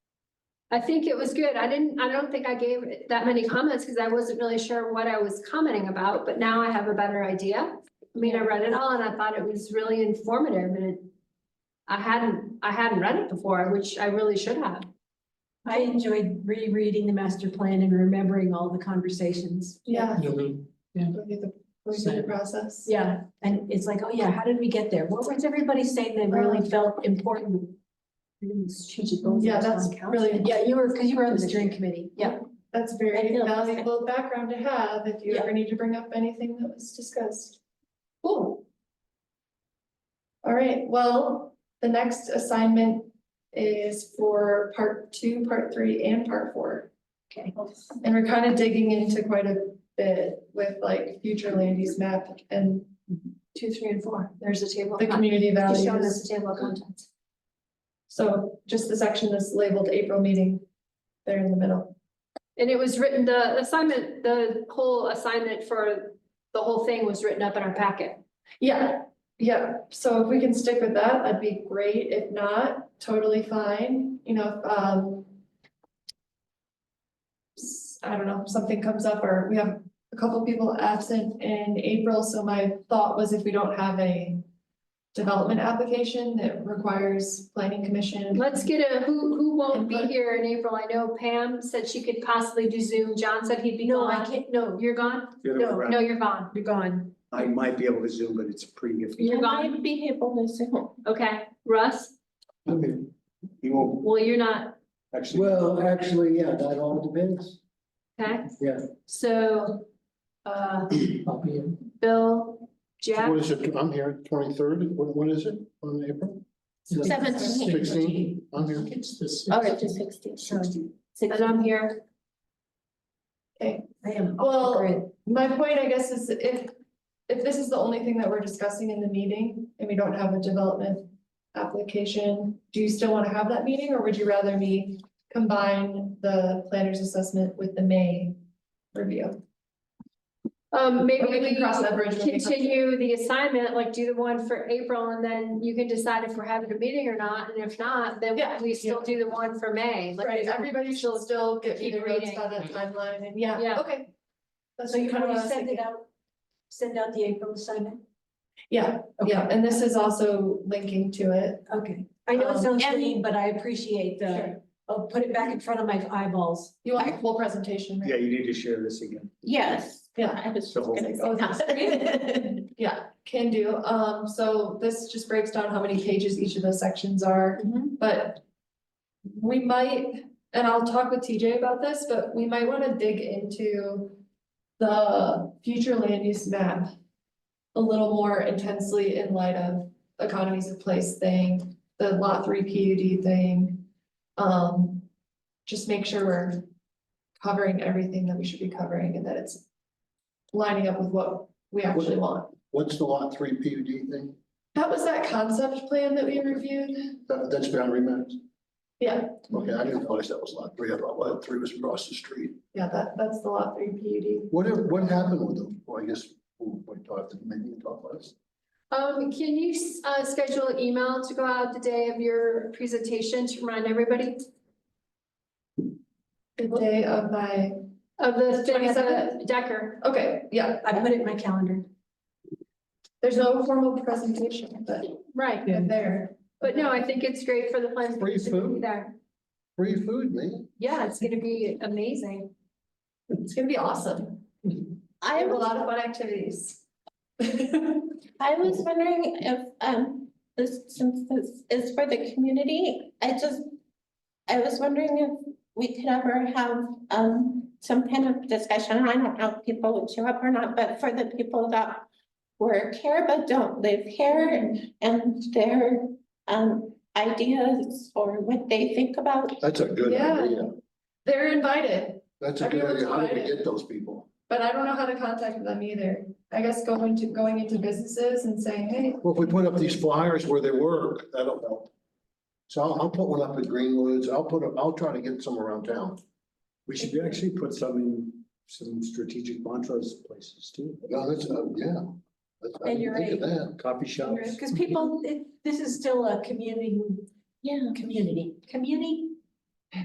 I think it was good. I didn't, I don't think I gave it that many comments because I wasn't really sure what I was commenting about, but now I have a better idea. I mean, I read it all and I thought it was really informative and it. I hadn't, I hadn't read it before, which I really should have. I enjoyed rereading the master plan and remembering all the conversations. Yeah. Yeah, we- Go through the, go through the Same. process. Yeah, and it's like, oh yeah, how did we get there? What was everybody saying that really felt important? Strategic goals. Yeah, that's really- Yeah, you were, because you were on the steering committee. Yeah. That's I very feel- valuable background to have if you Yeah. ever need to bring up anything that was discussed. Cool. All right, well, the next assignment is for part two, part three, and part four. Okay. And we're kind of digging into quite a bit with like future land use map and Two, three, and four. There's a table. the community Just showing values. us the table of contents. So just the section that's labeled April meeting, there in the middle. And it was written, the assignment, the whole assignment for the whole thing was written up in our packet. Yeah, yeah, so if we can stick with that, that'd be great, if not, totally fine, you know, if, um. s- I don't know, something comes up or we have a couple people absent in April, so my thought was if we don't have a. Development application that requires planning commission. Let's get a, who, who won't be Input. here in April? I know Pam said she could possibly do Zoom. John said he'd be No, I gone. can't, no, You're gone? The other way No, around. No, you're gone. you're gone. I might be able to zoom, but it's pretty iffy. You're gone. be able to zoom. Okay. Russ? You won't Well, you're not, actually. Well, actually, yeah, that all depends. okay? Yeah. So, uh, I'll be in. Bill, Jack, What is it? I'm here twenty-third. What, what is it on April? Seventeenth. Sixteen, I'm here. It's this. Oh, it's just sixty, so. and I'm here. I am. Well, My point, I guess, is if, if this is the only thing that we're discussing in the meeting and we don't have a development application, do you still want to have that meeting or would you rather me combine the planner's assessment with the May review? Um, maybe Okay, we we can cross that bridge when we come to it. continue the assignment, like do the one for April and then you can decide if we're having a meeting or not. And if not, then Yeah. we still do the one for May. Like, Right, everybody should still get Keep either votes reading. by that timeline and Yeah. yeah, okay. That's So you kind of want what I to was send it thinking. out, send out the April assignment? Yeah, yeah, and this is also linking to it. Okay, I know it Um, sounds and- mean, but I appreciate the, Sure. oh, put it back in front of my eyeballs. You want the full presentation, right? Yeah, you need to share this again. Yes. Yeah. I was The whole gonna thing. say that. Yeah, can do. Um, so this just breaks down how many pages each of those sections are, but we might, and I'll talk with TJ about this, but we might wanna dig into the future land use map a little more intensely in light of economies of place thing, the lot three PUD thing. Um, just make sure we're covering everything that we should be covering and that it's lining up with what we actually want. What's the lot three PUD thing? That was that concept plan that we reviewed. That, that's boundary maps. Yeah, Okay, I didn't realize that was lot three. I thought lot three was across the street. yeah, that, that's the lot three PUD. What, what happened with them? Well, I guess we'll, we'll talk to, maybe we'll talk about this. Um, can you, uh, schedule an email to go out the day of your presentation to remind everybody The day of my, of the thing at the 27th? Decker? okay, yeah, I put it in my calendar. there's no formal presentation, but Right. I'm there. But no, I think it's great for the plans. Free to be food? there. Free food, man. Yeah, it's gonna be amazing. It's gonna be awesome. I I have a was, lot of fun activities. Yes, I was wondering if, um, this, since this is for the community, I just, I was wondering if we could ever have, um, some kind of discussion, I don't know if people would show up or not, but for the people that work here but don't live here and their, um, ideas or what they think about That's a good Yeah. idea. they're invited, That's a good Everyone's idea. How do we invited. get those people? but I don't know how to contact them either. I guess going to, going into businesses and saying, hey, Well, if we put up these flyers where they work, that'll help. So I'll, I'll put one up at Greenwoods. I'll put, a- I'll try to get some around town. We should actually put some in some strategic Montrose places too. No, that's, uh, yeah. That's- I And you're didn't think of that. Coffee shops. Because people, it- this is still a community, Yeah. community, community,